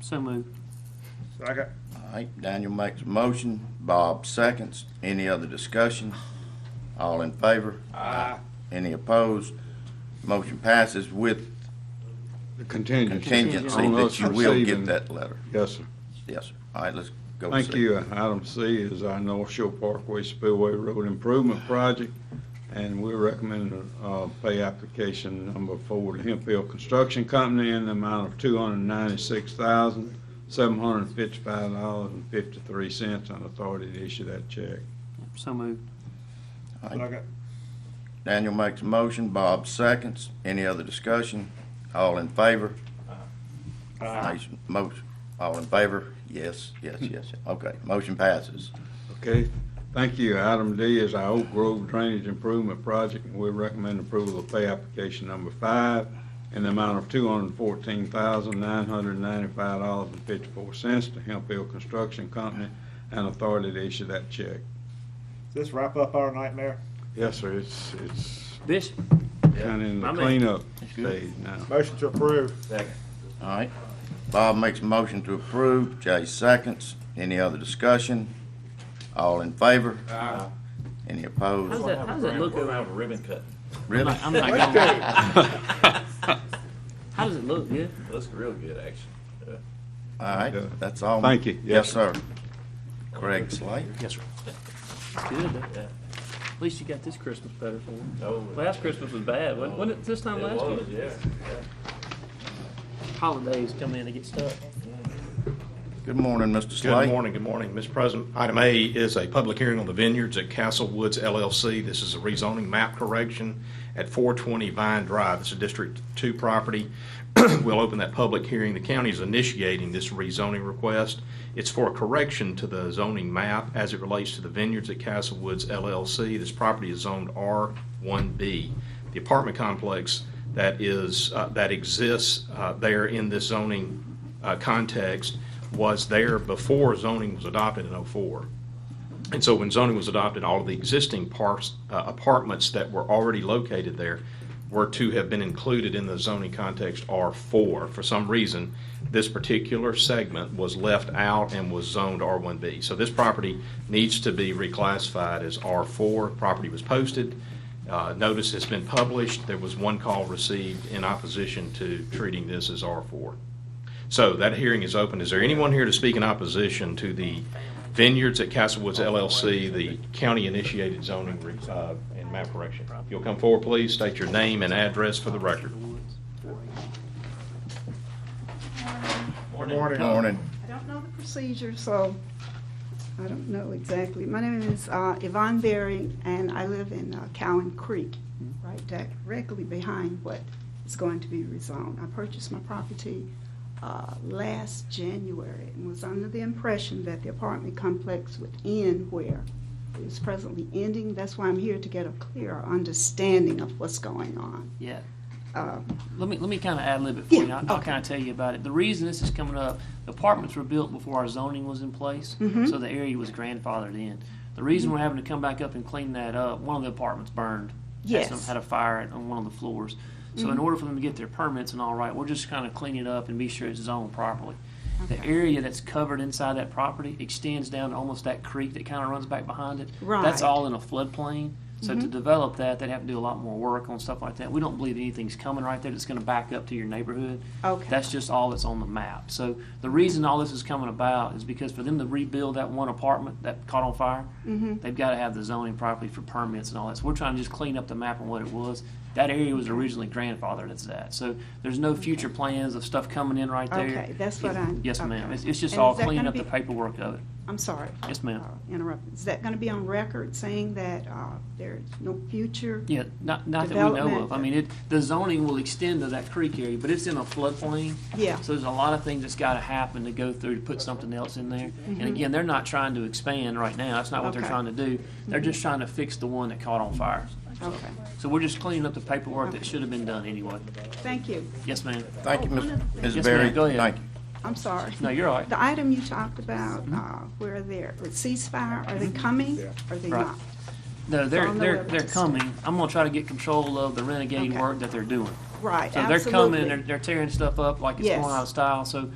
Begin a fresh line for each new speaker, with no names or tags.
So moved.
Second.
All right, Daniel makes a motion, Bob seconds. Any other discussion? All in favor?
Aye.
Any opposed? Motion passes with
The contingency.
contingency
On
that
us
you will
receiving-
get that letter.
Yes, sir.
Yes, sir. All right, let's go. to
Thank
six.
you. Item C is our North Shore Parkway Spillway Road Improvement Project, and we're recommending uh, pay application number four to Hemp Hill Construction Company in the amount of two hundred ninety-six thousand, seven hundred fifty-five dollars and fifty-three cents on authority to issue that check.
So moved.
Second.
Daniel makes a motion, Bob seconds. Any other discussion? All in favor?
Aye.
Nice Motion, all in favor? Yes, yes, yes. Okay, motion passes.
Okay, thank you. Item D is our Oak Grove Drainage Improvement Project, and we recommend approval of pay application number five in the amount of two hundred and fourteen thousand, nine hundred and ninety-five dollars and fifty-four cents to Hemp Hill Construction Company and authority to issue that check.
Does this wrap up our nightmare?
Yes, sir, it's, it's
This,
kinda in the
My man.
cleanup stage now.
Motion to approve.
All right. Bob makes a motion to approve, Jay seconds. Any other discussion? All in favor? Aye. Any
how's
opposed?
that, how's that look?
We're gonna have a ribbon cut.
Really?
I'm not gonna lie. How does it look? Good?
Looks real good, actually.
All right, that's all.
Thank you.
Yes, sir. Craig Slate?
Yes, sir.
It's good. though. At least you got this Christmas better for me.
Oh,
Last Christmas was bad, wasn't, wasn't it this
it
time last
was,
year?
yeah.
Holidays come in and get stuck.
Good morning, Mr. Slate.
Good morning, good morning, Mr. President. Item A is a public hearing on the vineyards at Castle Woods LLC. This is a rezoning map correction at 420 Vine Drive. This is District 2 property. We'll open that public hearing. The county is initiating this rezoning request. It's for a correction to the zoning map as it relates to the vineyards at Castle Woods LLC. This property is zoned R1B. The apartment complex that is, uh, that exists uh, there in this zoning uh, context was there before zoning was adopted in '04. And so when zoning was adopted, all of the existing parks, uh, apartments that were already located there were to have been included in the zoning context R4. For some reason, this particular segment was left out and was zoned R1B. So this property needs to be reclassified as R4. Property was posted. Uh, Notice has been published. There was one call received in opposition to treating this as R4. So that hearing is open. Is there anyone here to speak in opposition to the Vineyards at Castle Woods LLC, the county-initiated zoning re- uh, and map correction? If you'll come forward, please, state your name and address for the record.
Good morning.
Morning.
I don't know the procedure, so I don't know exactly. My name is uh, Yvonne Berry, and I live in uh, Cowan Creek,
Mm-hmm.
right directly behind what is going to be rezoned. I purchased my property uh, last January and was under the impression that the apartment complex would end where it is presently ending. That's why I'm here to get a clearer understanding of what's going on.
Yeah.
Uh,
Let me, let me kind of ad lib it for you.
Yeah,
I'll, I'll
okay.
kind of tell you about it. The reason this is coming up, the apartments were built before our zoning was in place,
Mhm.
so the area was grandfathered in. The reason
Mm-hmm.
we're having to come back up and clean that up, one of the apartments burned. Had
Yes. Mm-hmm.
some- Had a fire on one of the floors. So in order for them to get their permits and all right, we're just kind of cleaning it up and be sure it's zoned properly. The area that's covered inside that property extends down to almost that creek that kind of runs back behind it. That's
Right.
all in a floodplain. So
Mm-hmm.
to develop that, they'd have to do a lot more work on stuff like that. We don't believe anything's coming right there that's going to back up to your neighborhood.
Okay.
That's just all that's on the map. So the reason all this is coming about is because for them to rebuild that one apartment that caught on fire,
Mm-hmm.
they've got to have the zoning properly for permits and all that. So we're trying to just clean up the map and what it was. That area was originally grandfathered as that. So there's no future plans of stuff coming in right there.
Okay, that's what I-
Yes, ma'am.
okay.
It's, it's just
And
all
is that
cleaning
gonna
up the
be-
paperwork of it.
I'm sorry.
Yes, ma'am.
uh, Interrupt. Is that going to be on record saying that uh, there's no future?
Yeah, not, not that we know of. I
Development.
mean, it, the zoning will extend to that creek area, but it's in a floodplain.
Yeah.
So there's a lot of things that's gotta happen to go through to put something else in there. And again, they're not trying to expand right now. That's not what they're
Mm-hmm. Okay. Mm-hmm.
trying to do. They're just trying to fix the one that caught on fire.
Okay,
So we're just cleaning up the paperwork that should have been done anyway.
thank you.
Yes, ma'am.
Thank you, Ms. Ms.
Yes,
Berry.
ma'am, go ahead.
Thank you.
I'm sorry.
No, you're all right. Mm-hmm.
The item you talked about, uh, where they're, with ceasefire, are they coming? Are they
Right.
not?
No, they're,
on the
they're,
web.
they're coming. I'm gonna try to get control of the renegade
Okay.
work that they're doing.
Right,
So they're coming,
absolutely.
they're, they're tearing stuff up like it's
Yes.
going out of style. So